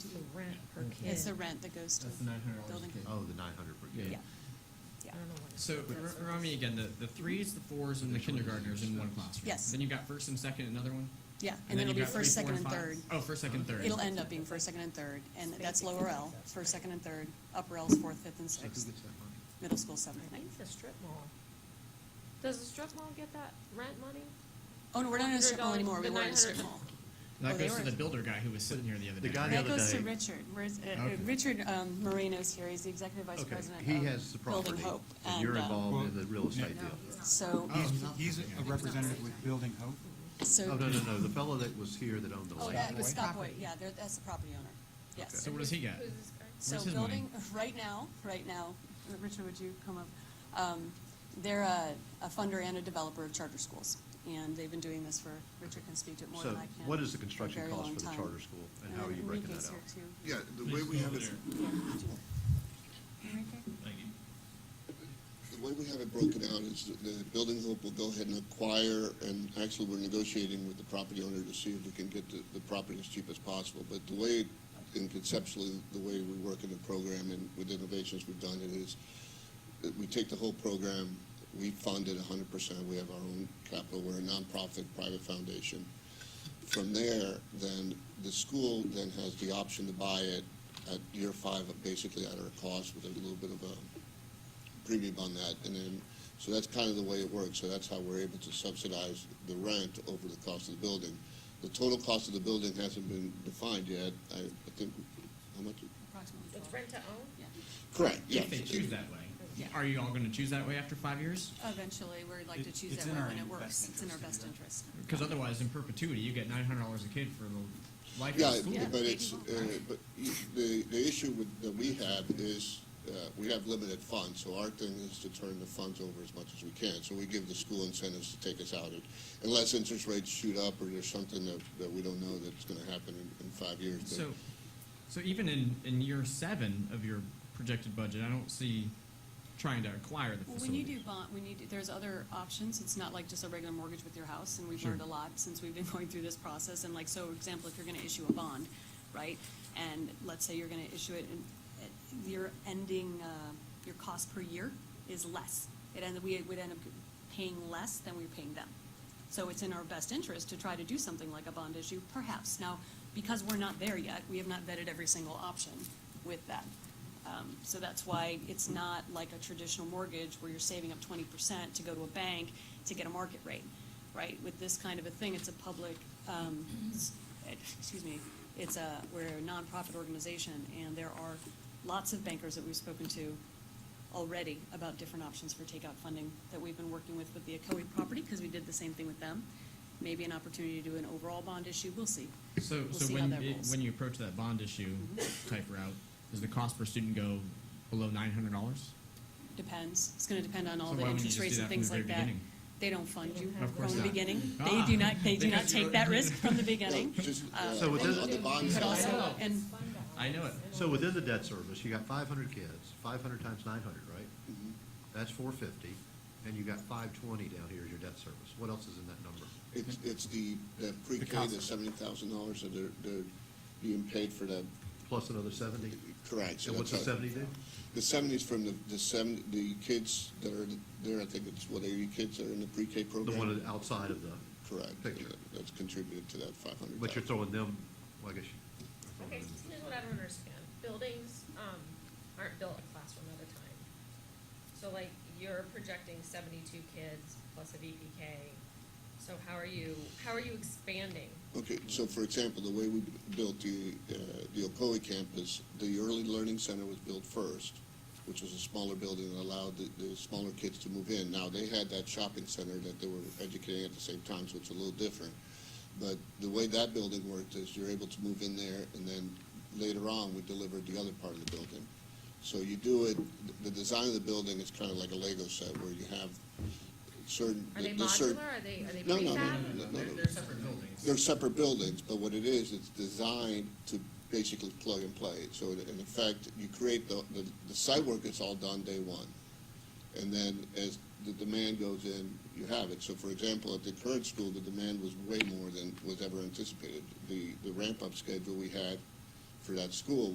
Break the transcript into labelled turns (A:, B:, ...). A: rent per kid.
B: It's the rent that goes to
C: That's the nine hundred dollars
B: building.
C: a kid.
D: Oh, the nine hundred per kid.
A: Yeah,
C: Yeah.
A: I
B: Yeah.
A: don't know what it's.
C: So r- remind me again, the, the threes, the fours, and the kindergartners in one classroom.
B: Yes.
C: Then you've got first and second, another one?
B: Yeah, and then it'll be
C: you've got
B: first,
C: three, four,
B: second, and
C: five.
B: third.
C: Oh, first, second, third.
B: It'll end up being first, second, and third, and that's lower L, first, second, and third, upper L's fourth, fifth, and
D: So who
B: sixth,
D: gets that money?
B: middle school seventh,
A: I
B: ninth.
A: think it's a strip mall. Does the strip mall get that rent money?
B: Oh, no, we're not in a strip mall
A: $100
B: anymore, we
A: the
B: were in a strip
A: 900.
B: mall.
C: That
B: Oh, they
C: goes to
B: were-
C: the builder guy who was sitting here the other
D: The
C: day.
D: guy the
B: That
D: other
B: goes to
D: day-
B: Richard, where's, uh, uh,
D: Okay.
B: Richard um, Moreno's here, he's the executive vice
D: Okay,
B: president of
D: he has the
B: Building
D: property,
B: Hope.
D: and you're
B: um,
D: involved in
E: Well,
D: the real estate
B: no,
D: deal.
B: So,
C: Oh.
E: He's, he's a representative with Building Hope.
B: so.
D: Oh, no, no, no, the fellow that was here that owned the
B: Oh,
D: land.
B: that was Scott Boyd,
E: Property.
B: yeah, there- that's the property owner, yes.
C: So what does he get?
B: So
C: Where's his money?
B: building, right now, right now, Richard, would you come up? Um, They're a a funder and a developer of charter schools, and they've been doing this for, Richard can speak to it more
D: So
B: than I can.
D: what is the
B: for a
D: construction
B: very
D: cost
B: long
D: for the
B: time.
D: charter school, and how are you
B: then
D: breaking
B: Enrique's
D: that out?
B: here, too.
F: Yeah, the way we have it,
B: Yeah, would you-
F: the way we have it broken out is that the building hope will go ahead and acquire, and actually, we're negotiating with the property owner to see if we can get the, the property as cheap as possible. But the way, and conceptually, the way we work in the program and with innovations we've done it is that we take the whole program, we fund it hundred percent, we have our own capital, we're a nonprofit, private foundation. From there, then the school then has the option to buy it at year five, basically at our cost with a little bit of a premium on that, and then, so that's kind of the way it works, so that's how we're able to subsidize the rent over the cost of the building. The total cost of the building hasn't been defined yet, I, I think, how much?
B: Approximately
A: It's
B: twelve.
A: rent to own?
B: Yeah.
F: Correct, yeah.
C: If they choose that way. Are you all gonna choose that way after five years?
B: Eventually, we'd like to
E: It-
B: choose
E: it's
B: that
E: in
B: way
E: our
B: when it
E: best
B: works, it's in our
E: interest
B: best
E: to do that.
B: interest.
C: Because otherwise, in perpetuity, you get nine hundred dollars a kid for the life
F: Yeah,
C: of the school.
F: but it's, uh, but you- the, the issue with, that we have is, uh, we have limited funds, so our thing is to turn the funds over as much as we can. So we give the school incentives to take us out, it- unless interest rates shoot up or there's something that, that we don't know that's gonna happen in, in five years. but-
C: So, so even in, in year seven of your projected budget, I don't see trying to acquire the
B: Well,
C: facility.
B: when you do bond, when you do, there's other options, it's not like just a regular mortgage with your house, and we've
C: Sure.
B: learned a lot since we've been going through this process, and like, so, for example, if you're gonna issue a bond, right? And let's say you're gonna issue it, and uh, your ending, uh, your cost per year is less. It end, we would end up paying less than we're paying them. So it's in our best interest to try to do something like a bond issue, perhaps. Now, because we're not there yet, we have not vetted every single option with that. Um, So that's why it's not like a traditional mortgage where you're saving up twenty percent to go to a bank to get a market rate, right? With this kind of a thing, it's a public, um, s- eh, excuse me, it's a, we're a nonprofit organization, and there are lots of bankers that we've spoken to already about different options for takeout funding that we've been working with with the Akoe property, because we did the same thing with them. Maybe an opportunity to do an overall bond issue, we'll see.
C: So,
B: We'll
C: so
B: see how
C: when,
B: that
C: it-
B: rolls.
C: when you approach that bond issue type route, does the cost per student go below nine hundred dollars?
B: Depends. It's gonna depend on all
C: So
B: the
C: why wouldn't you
B: interest
C: just
B: rates
C: do
B: and
C: that from
B: things
C: the very
B: like that.
C: beginning?
B: They don't fund you
C: Of course
B: from the
C: not.
B: beginning. They
C: Ah.
B: do not, they do not
C: Because you're-
B: take that risk from the
F: No,
B: beginning.
F: just,
B: Uh,
F: uh,
D: So with
F: on-
D: this-
F: on the bond
B: But
F: side-
B: also, and
C: I know it.
D: So within the debt service, you got five hundred kids, five hundred times nine hundred, right?
B: Mm-hmm.
D: That's four fifty, and you got five twenty down here as your debt service. What else is in that number?
F: It's, it's the, the pre-K,
E: cost.
F: the seventy thousand dollars that they're, they're being paid for that,
D: Plus another seventy?
F: correct. so
D: And what's the
F: that's how-
D: seventy do?
F: The seventies from the, the seven, the kids that are there, I think it's what, eighty kids that are in the pre-K
D: The
F: program?
D: one that- outside of the,
F: Correct.
D: Picture.
F: That- That's contributed to that five hundred thousand.
D: but you're throwing them, well, I guess you. you're
G: Okay,
D: throwing
G: so
D: them.
G: here's what I don't understand. Buildings, um, aren't built a classroom at a time. So like, you're projecting seventy-two kids plus a VPK, so how are you, how are you expanding?
F: Okay, so for example, the way we built the, uh, the Ocoee campus, the early learning center was built first, which was a smaller building that allowed the, the smaller kids to move in. Now, they had that shopping center that they were educating at the same time, so it's a little different. But the way that building worked is you're able to move in there, and then later on, we delivered the other part of the building. So you do it, the design of the building is kind of like a Lego set, where you have certain.
G: Are they
F: there's certain-
G: modular, are they, are they
F: No, no, no,
G: prefab?
F: no, no, no, no.
C: They're separate buildings.
F: They're separate buildings, but what it is, it's designed to basically plug and play. So in in effect, you create the, the, the site work is all done day one. And then as the demand goes in, you have it. So for example, at the current school, the demand was way more than was ever anticipated. The, the ramp-up schedule we had for that school